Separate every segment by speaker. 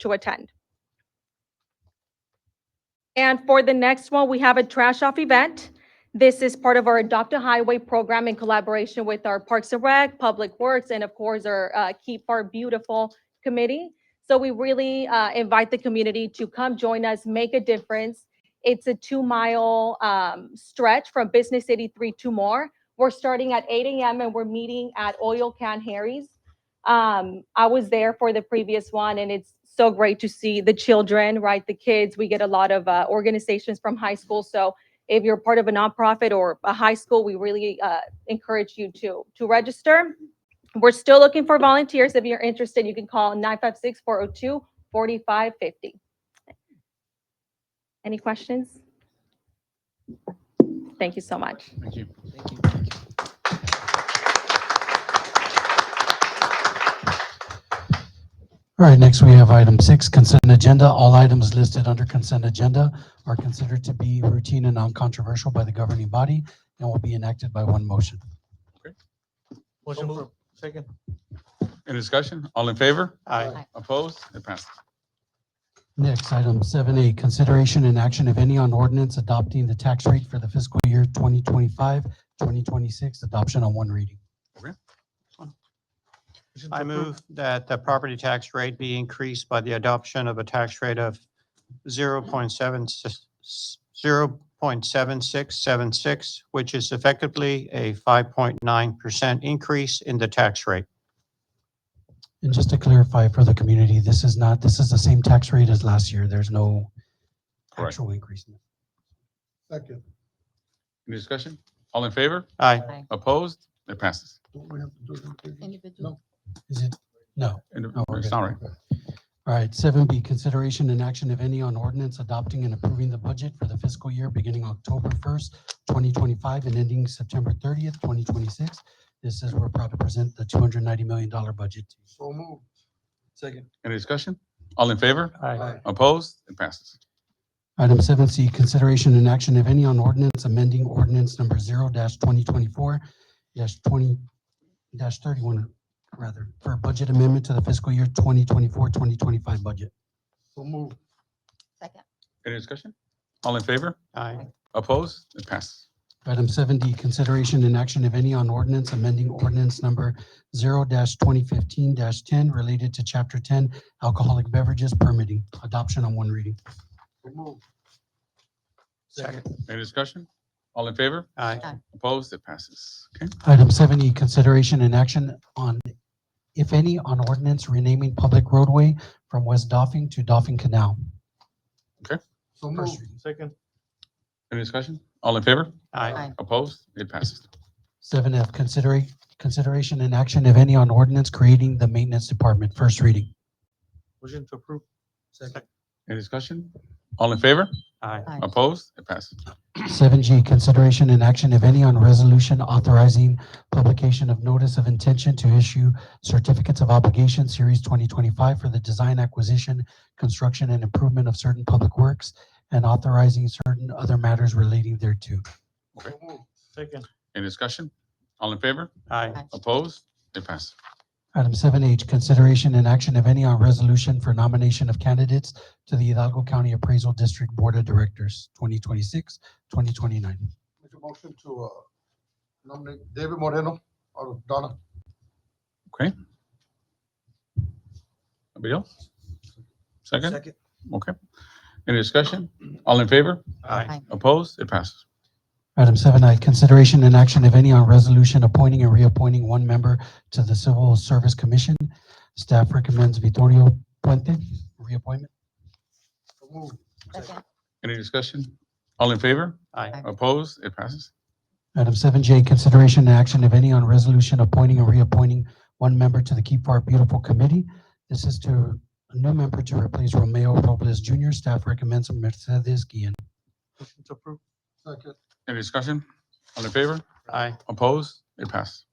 Speaker 1: to attend. And for the next one, we have a trash off event. This is part of our Adopt a Highway program in collaboration with our Parks and Rec, Public Works, and of course, our uh, Keep Our Beautiful Committee. So we really uh, invite the community to come join us, make a difference. It's a two-mile um, stretch from Business 83 to more. We're starting at 8 a.m. and we're meeting at Oil Can Harry's. Um, I was there for the previous one and it's so great to see the children, right? The kids. We get a lot of uh, organizations from high school. So if you're part of a nonprofit or a high school, we really uh, encourage you to to register. We're still looking for volunteers. If you're interested, you can call 956 402 4550. oh. Any questions? Thank you so much.
Speaker 2: Thank you.
Speaker 3: All right, next we have item six, consent agenda. All items listed under consent agenda are considered to be routine and non-controversial by the governing body and will be enacted by one motion.
Speaker 4: Motion for, second.
Speaker 2: Any discussion? All in favor?
Speaker 4: Aye.
Speaker 2: Opposed? It passes.
Speaker 3: Next, item seven A, consideration and action, if any, on ordinance adopting the tax rate for the fiscal year 2025, 2026, adoption on one reading.
Speaker 4: Motion to
Speaker 5: I
Speaker 4: approve.
Speaker 5: move that the property tax rate be increased by the adoption of a tax rate of 0.76 0.7676, which is effectively a 5.9% increase in the tax rate.
Speaker 3: And just to clarify for the community, this is not, this is the same tax rate as last year. There's no
Speaker 2: Correct.
Speaker 3: actual increase.
Speaker 4: Second.
Speaker 2: Any discussion? All in favor?
Speaker 5: Aye.
Speaker 2: Opposed? It passes.
Speaker 4: Don't we have to do it individually?
Speaker 6: Individual.
Speaker 3: Is it? No.
Speaker 2: And
Speaker 3: No, we're
Speaker 2: it's
Speaker 3: good.
Speaker 2: all right.
Speaker 3: All right, seven B, consideration and action, if any, on ordinance adopting and approving the budget for the fiscal year beginning October first, twenty twenty-five and ending September thirtieth, twenty twenty-six. This is, we're proud to present the two hundred ninety million dollar budget.
Speaker 4: So moved. Second.
Speaker 2: Any discussion? All in favor?
Speaker 4: Aye.
Speaker 2: Opposed? It passes.
Speaker 3: Item seven C, consideration and action, if any, on ordinance amending ordinance number zero twenty twenty-four twenty thirty-one, rather, for a budget amendment to the fiscal year 2024-2025 budget.
Speaker 4: So moved.
Speaker 6: Second.
Speaker 2: Any discussion? All in favor?
Speaker 5: Aye.
Speaker 2: Opposed? It passes.
Speaker 3: Item seven D, consideration and action, if any, on ordinance amending ordinance number zero twenty fifteen ten related to chapter ten alcoholic beverages permitting, adoption on one reading.
Speaker 4: So moved.
Speaker 5: Second.
Speaker 2: Any discussion? All in favor?
Speaker 5: Aye.
Speaker 2: Opposed? It passes. Okay.
Speaker 3: Item seven E, consideration and action on, if any, on ordinance renaming public roadway from West Doffing to Doffing Canal.
Speaker 4: So
Speaker 3: First
Speaker 4: moved. Second.
Speaker 2: Any discussion? All in favor?
Speaker 5: Aye.
Speaker 2: Opposed? It passes.
Speaker 3: Seven F, considering, consideration and action, if any, on ordinance creating the maintenance department, first reading.
Speaker 4: Motion to approve. Second.
Speaker 2: Any discussion? All in favor?
Speaker 5: Aye.
Speaker 6: Aye.
Speaker 2: Opposed? It passes.
Speaker 3: Seven G, consideration and action, if any, on resolution authorizing publication of notice of intention to issue certificates of obligation, series twenty twenty-five, for the design, acquisition, construction, and improvement of certain public works, and authorizing certain other matters relating thereto.
Speaker 4: So moved. Second.
Speaker 2: Any discussion? All in favor?
Speaker 5: Aye.
Speaker 2: Opposed? It passes.
Speaker 3: Item seven H, consideration and action, if any, on resolution for nomination of candidates to the Hidalgo County Appraisal District Board of Directors, 2026-2029.
Speaker 4: Make a motion to, uh, nominate David Moreno out of Donna.
Speaker 2: Anybody else? Second? Okay. Any discussion? All in favor?
Speaker 5: Aye.
Speaker 2: Opposed? It passes.
Speaker 3: Item seven I, consideration and action, if any, on resolution appointing and reappointing one member to the Civil Service Commission. Staff recommends Vittorio Puente, reappointment.
Speaker 4: So moved.
Speaker 6: Second.
Speaker 2: Any discussion? All in favor?
Speaker 5: Aye.
Speaker 2: Opposed? It passes.
Speaker 3: Item seven J, consideration and action, if any, on resolution appointing and reappointing one member to the Keep Our Beautiful Committee. This is to, a new member to replace Romeo Robles Jr. Staff recommends Mercedes Guillen.
Speaker 4: Motion to approve. Second.
Speaker 2: Any discussion? All in favor?
Speaker 5: Aye.
Speaker 2: Opposed? It passes.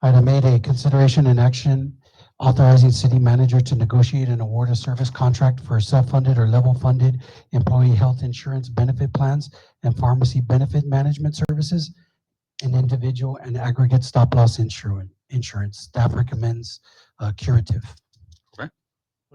Speaker 3: Item eight A, consideration and action authorizing city manager to negotiate and award a service contract for self-funded or level-funded employee health insurance benefit plans and pharmacy benefit management services and individual and aggregate stop-loss insurance. Insurance. Staff recommends uh, curative.